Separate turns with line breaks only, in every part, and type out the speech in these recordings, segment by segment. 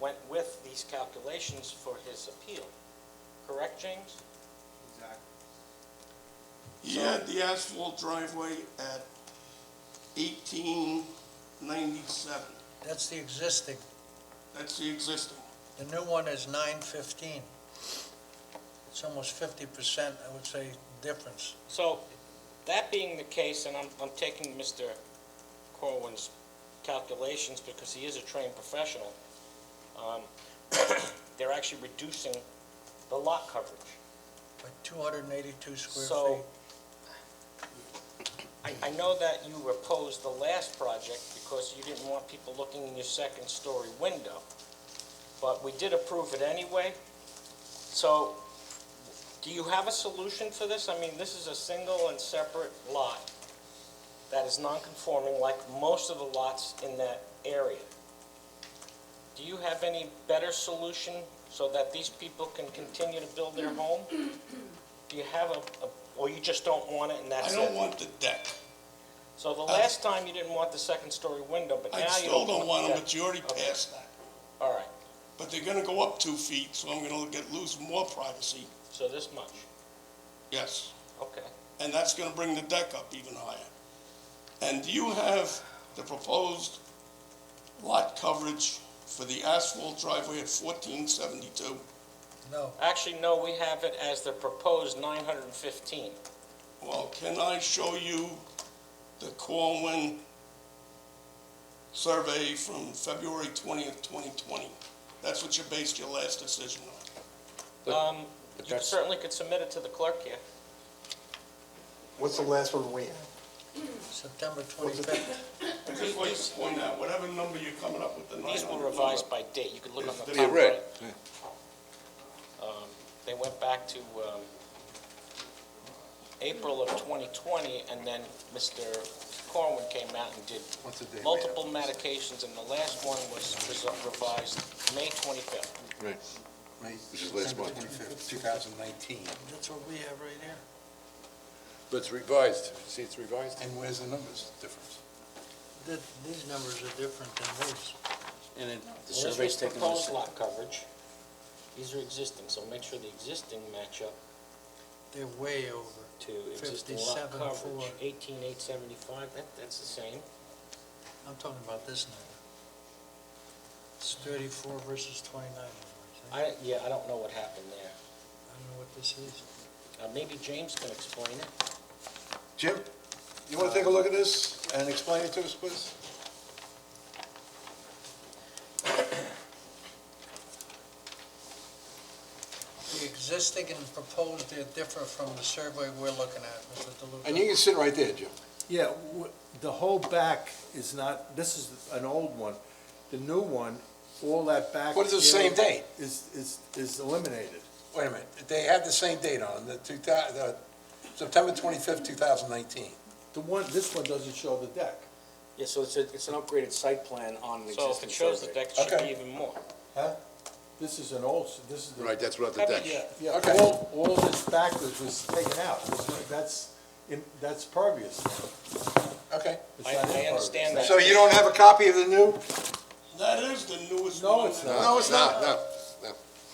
went with these calculations for his appeal. Correct, James?
Exactly.
He had the asphalt driveway at eighteen ninety-seven.
That's the existing.
That's the existing.
The new one is nine fifteen. It's almost fifty percent, I would say, difference.
So, that being the case, and I'm, I'm taking Mr. Corwin's calculations because he is a trained professional, um, they're actually reducing the lot coverage.
By two hundred and eighty-two square
So,
feet.
I, I know that you opposed the last project because you didn't want people looking in your second-story window, but we did approve it anyway. So, do you have a solution for this? I mean, this is a single and separate lot that is non-conforming like most of the lots in that area. Do you have any better solution so that these people can continue to build their home? Do you have a, a- or you just don't want it and
I
that's it?
don't want the deck.
So the last time you didn't want the second story window, but now
Uh, I
you.
still don't want them,
that.
but you already
Okay.
passed that.
All right,
But they're gonna go up two feet, so I'm gonna get, lose more privacy,
so this much,
yes.
okay.
And that's gonna bring the deck up even higher. And do you have the proposed lot coverage for the asphalt driveway at fourteen seventy-two?
No,
Actually, no, we have it as the proposed nine hundred and fifteen.
Well, can I show you the Corwin survey from February twentieth, twenty twenty? That's what you based your last decision on.
Um,
But
you
that's-
certainly could submit it to the clerk here.
What's the last one we had?
September twenty-fifth.
I just like to point out, whatever number you're coming up with, the nine
These
hundred
were
number.
revised by date, you could look on
Is
the
the-
top
Yeah,
right. Um, They went back to, um, April of twenty twenty, and then Mr. Corwin came out and did
What's the date?
multiple medications, and the last one was was revised May twenty-fifth.
Right. Which is last month.
2019.
That's what we have right here.
But it's revised. See, it's revised.
And where's the numbers difference?
That, these numbers are different than these.
And it, the
Well, This
survey's
was
taken on the
proposed
same.
lot coverage. These are existing, so make sure the existing match up
They're way over.
to existing lot
57.4.
coverage. Eighteen eight seventy-five, that, that's the same.
I'm talking about this number. It's thirty-four versus twenty-nine. I think.
I, yeah, I don't know what happened there.
I don't know what this is.
Uh, maybe James can explain it.
Jim, you want to take a look at this and explain it to us, please?
The existing and proposed, they differ from the survey we're looking at, Mr. DeLuca.
And you can sit right there, Jim.
Yeah, w- the whole back is not, this is an old one. The new one, all that back.
What is the same
area
date?
Is, is, is eliminated.
Wait a minute, they had the same date on, the 2000, the September 25th, 2019.
The one, this one doesn't show the deck.
Yeah, so it's a, it's an upgraded site plan on an
So if
existing
it shows the
survey.
deck, it should be
Okay.
even more.
Huh? This is an old, s- this is the.
Right, that's without the
How about
deck.
you?
Yeah,
Okay.
all, all this backwards was taken out. This- That's, in- that's pervious.
Okay.
It's
I,
not
I
impervious.
understand that.
So you don't have a copy of the new?
That is the newest
No,
one.
it's
that-
not.
No, it's not, no.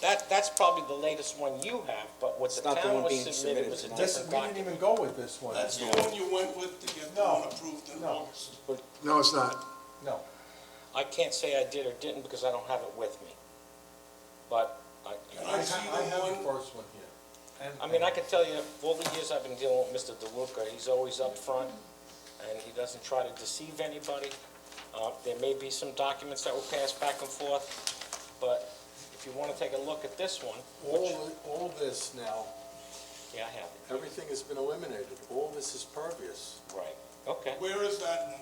That, that's probably the latest one you have, but what the
not the
town
one
was
being
submitted
submitted
was a
tonight.
This,
different
we didn't
document.
even go with this one.
That's the one you went with to get the
No.
one approved in
No.
August.
No, it's not.
No.
I can't say I did or didn't because I don't have it with me. But I,
Can
I
I see
ha- I
the
have the
one?
first one here. And-
I mean, I can tell you, all the years I've been dealing with Mr. DeLuca, he's always up front, and he doesn't try to deceive anybody. Uh, There may be some documents that will pass back and forth, but if you want to take a look at this one, which,
All, all this now,
yeah, I have it,
everything has been eliminated, all this is pervious.
right, okay.
Where is that one?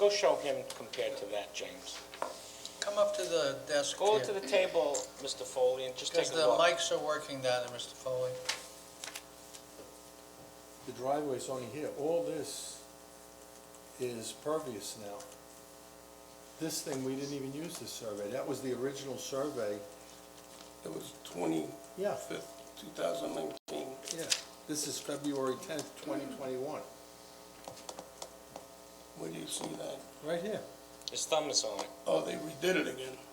Go show him compared to that, James.
Come up to the desk
Go to
here,
the table, Mr. Foley, and just take
because
a
the
look.
mics are working down there, Mr. Foley.
The driveway's only here, all this is pervious now. This thing, we didn't even use this survey, that was the original survey,
It was twenty
yeah,
fifth, two thousand nineteen.
yeah. This is February tenth, twenty twenty-one,
Where do you see that?
right here.
His thumb is on it.
Oh, they redid it again.